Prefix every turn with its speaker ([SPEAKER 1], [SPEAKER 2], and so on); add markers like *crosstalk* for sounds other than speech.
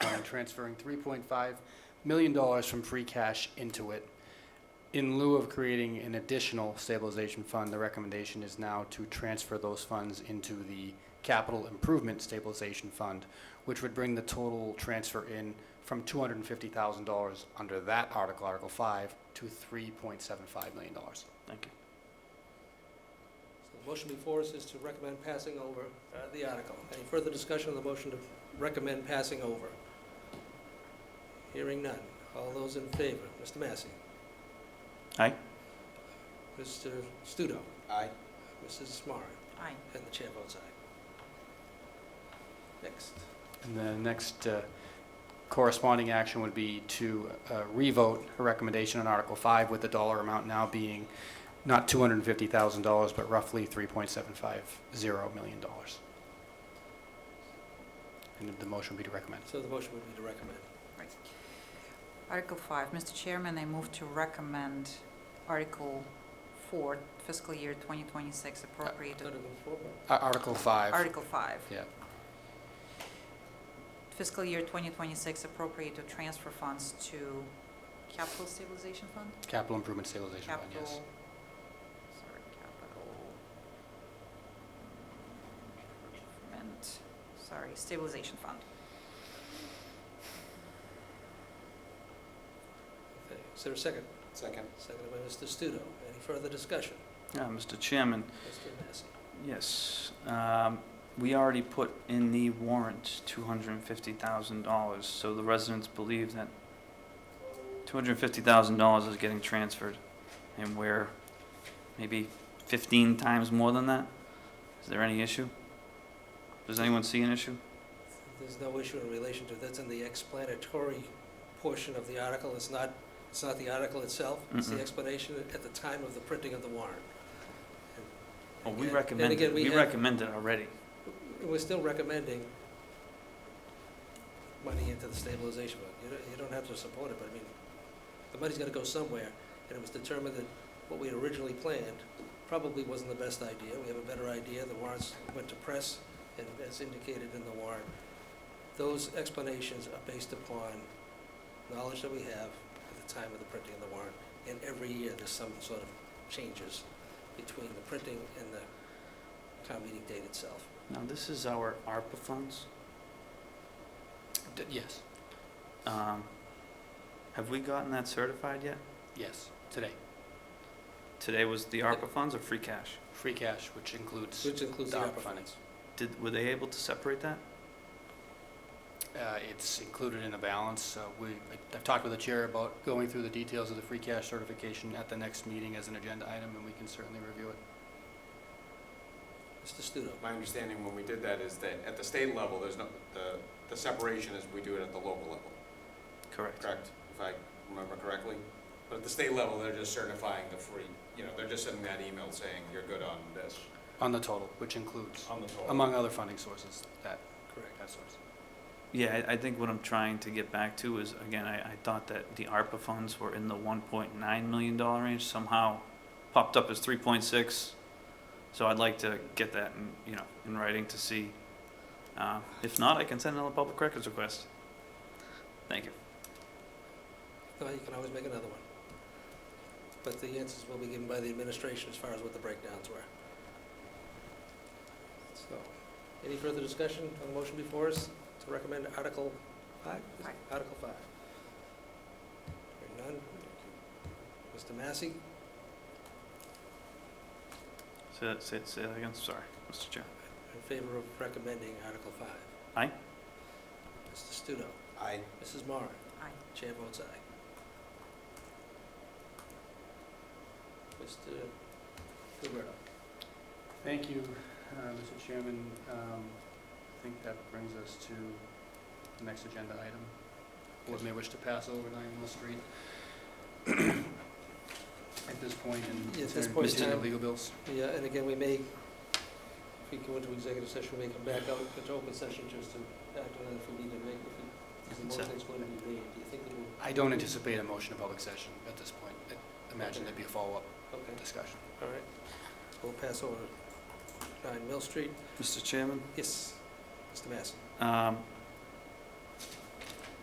[SPEAKER 1] and transferring $3.5 million from free cash into it. In lieu of creating an additional stabilization fund, the recommendation is now to transfer those funds into the capital improvement stabilization fund, which would bring the total transfer in from $250,000 under that article, Article 5, to $3.75 million.
[SPEAKER 2] Thank you.
[SPEAKER 3] So The motion before us is to recommend passing over uh, the article. Any further discussion on the motion to recommend passing over? Hearing none. All those in favor? Mr. Massey?
[SPEAKER 2] Aye.
[SPEAKER 3] Mr. Studo?
[SPEAKER 1] Aye.
[SPEAKER 3] Mrs. Smart?
[SPEAKER 4] Aye.
[SPEAKER 3] And the chair votes aye. Next.
[SPEAKER 1] And the next uh, corresponding action would be to uh, revote a recommendation on Article 5 with the dollar amount now being not $250,000, but roughly $3.750 million. And the motion would be to recommend.
[SPEAKER 3] So the motion would be to recommend.
[SPEAKER 4] Article five, Mr. Chairman, I move to recommend Article four, fiscal year 2026 appropriated.
[SPEAKER 3] Article four,
[SPEAKER 1] Ar- Article 5,
[SPEAKER 4] Article five.
[SPEAKER 1] Yeah.
[SPEAKER 4] Fiscal year 2026 appropriated transfer funds to capital stabilization fund?
[SPEAKER 1] Capital Improvement Stabilization Fund,
[SPEAKER 4] Capital,
[SPEAKER 1] yes.
[SPEAKER 4] sorry, capital. improvement, Sorry, stabilization fund.
[SPEAKER 3] okay. Is there a second?
[SPEAKER 1] Second.
[SPEAKER 3] Seconded by Mr. Studo. Any further discussion?
[SPEAKER 2] Uh, Mr. Chairman,
[SPEAKER 3] Mr. Massey?
[SPEAKER 2] yes, um, we already put in the warrant $250,000, so the residents believe that $250,000 is getting transferred, and we're maybe 15 times more than that? Is there any issue? Does anyone see an issue?
[SPEAKER 3] There's no issue in relation to, that's in the explanatory portion of the article. It's not, it's not the article itself. It's the
[SPEAKER 2] Mm-mm.
[SPEAKER 3] explanation at the time of the printing of the warrant.
[SPEAKER 2] Well, Oh, we
[SPEAKER 3] And- and
[SPEAKER 2] recommend
[SPEAKER 3] again,
[SPEAKER 2] it,
[SPEAKER 3] we
[SPEAKER 2] we
[SPEAKER 3] have-
[SPEAKER 2] recommend it already.
[SPEAKER 3] We're still recommending money into the stabilization fund. You don't, you don't have to support it, but I mean, the money's gotta go somewhere. And it was determined that what we had originally planned probably wasn't the best idea. We have a better idea. The warrants went to press and as indicated in the warrant. Those explanations are based upon knowledge that we have at the time of the printing of the warrant. And every year, there's some sort of changes between the printing and the town meeting date itself.
[SPEAKER 2] Now, this is our ARPA funds.
[SPEAKER 1] Yes,
[SPEAKER 2] Um, Have we gotten that certified yet?
[SPEAKER 1] yes, today.
[SPEAKER 2] Today was the ARPA funds or free cash?
[SPEAKER 1] Free cash, which includes
[SPEAKER 3] Which includes
[SPEAKER 1] the
[SPEAKER 3] the
[SPEAKER 1] ARPA
[SPEAKER 3] ARPA
[SPEAKER 1] funding.
[SPEAKER 3] funds.
[SPEAKER 2] Did, were they able to separate that?
[SPEAKER 1] Uh, It's included in the balance. Uh, We, I- I've talked with the chair about going through the details of the free cash certification at the next meeting as an agenda item, and we can certainly review it.
[SPEAKER 3] Mr. Studo,
[SPEAKER 5] My understanding when we did that is that at the state level, there's no, the, the separation is we do it at the local level,
[SPEAKER 2] Correct.
[SPEAKER 5] correct? If I remember correctly? But at the state level, they're just certifying the free, you know, they're just sending that email saying you're good on this,
[SPEAKER 1] On the total, which includes,
[SPEAKER 5] on the
[SPEAKER 3] Um,
[SPEAKER 5] total.
[SPEAKER 1] among other funding sources, that,
[SPEAKER 3] correct.
[SPEAKER 1] that source.
[SPEAKER 2] Yeah, I, I think what I'm trying to get back to is, again, I, I thought that the ARPA funds were in the one point nine million dollar range, somehow popped up as three point six. So I'd like to get that in, you know, in writing to see. Uh, if not, I can send another public records request. Thank you.
[SPEAKER 3] No, you can always make another one. But the answers will be given by the administration as far as what the breakdowns were. So, any further discussion on the motion before us to recommend Article 5?
[SPEAKER 4] Aye.
[SPEAKER 3] Article 5. Hearing none. Mr. Massey,
[SPEAKER 2] Say that, say, say that again, sorry, Mr. Chair.
[SPEAKER 3] in favor of recommending Article 5.
[SPEAKER 2] Aye.
[SPEAKER 3] Mr. Studo,
[SPEAKER 5] I,
[SPEAKER 3] Mrs. Moran,
[SPEAKER 4] Aye.
[SPEAKER 3] chair votes aye. Mr. Gilberto.
[SPEAKER 1] Thank you, uh, Mr. Chairman. Um, I think that brings us to the next agenda item. Board may wish to pass over nine Mill Street *clears throat* at this point and
[SPEAKER 3] Yeah, at this
[SPEAKER 1] consider
[SPEAKER 3] point in
[SPEAKER 1] consider
[SPEAKER 3] time.
[SPEAKER 1] legal bills.
[SPEAKER 3] Yeah, and again, we may, if we go into executive session, we may come back out into open session just to act on it if we need to make, if we- if the
[SPEAKER 2] Consent.
[SPEAKER 3] motion's going to be made. Do you think that we'll,
[SPEAKER 1] I don't anticipate a motion of public session at this point. I Imagine there'd be a follow-up
[SPEAKER 3] okay,
[SPEAKER 1] discussion.
[SPEAKER 3] all right. We'll pass over 9 Mill Street.
[SPEAKER 2] Mr. Chairman?
[SPEAKER 3] Yes, Mr. Massey.
[SPEAKER 2] Um,